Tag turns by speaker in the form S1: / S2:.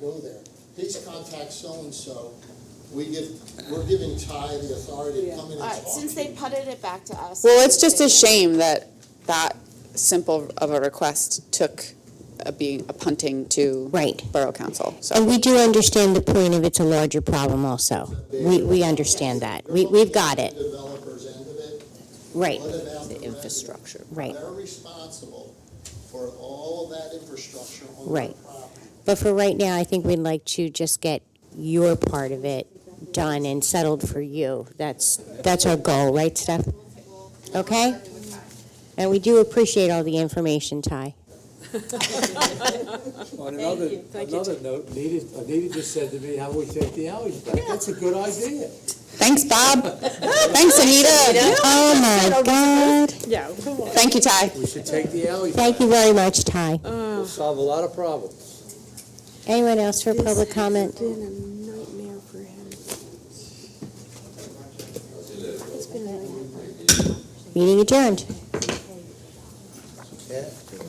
S1: go there. Please contact so-and-so. We give, we're giving Ty the authority to come in and
S2: All
S1: talk
S2: right, since
S1: to
S2: they
S1: you.
S2: putted it back to us.
S3: Well, it's just a shame that that simple of a request took a being, a punting to
S4: Right.
S3: Borough Council, so.
S4: And we do understand the point of it's a larger problem also. We, we understand that. We, we've got
S1: You're
S4: it,
S1: looking at the Developer's end of it.
S4: right,
S1: What about the resident?
S4: right.
S1: They're responsible for all of that infrastructure on their
S4: Right.
S1: property.
S4: But for right now, I think we'd like to just get your part of it done and settled for you. That's, that's our goal, right, Steph? Okay? And we do appreciate all the information, Ty.
S5: On another, another note, Nita, uh, Nita just said to me, how we take the alleys back? That's a good idea.
S3: Thanks, Bob. Thanks, Anita.
S4: Oh, my God.
S6: Yeah, come on.
S3: Thank you, Ty.
S5: We should take the alleys back.
S4: Thank you very much, Ty.
S5: We'll solve a lot of problems.
S4: Anyone else for public comment?
S6: It's been a nightmare for him. It's been a nightmare.
S4: Meeting adjourned.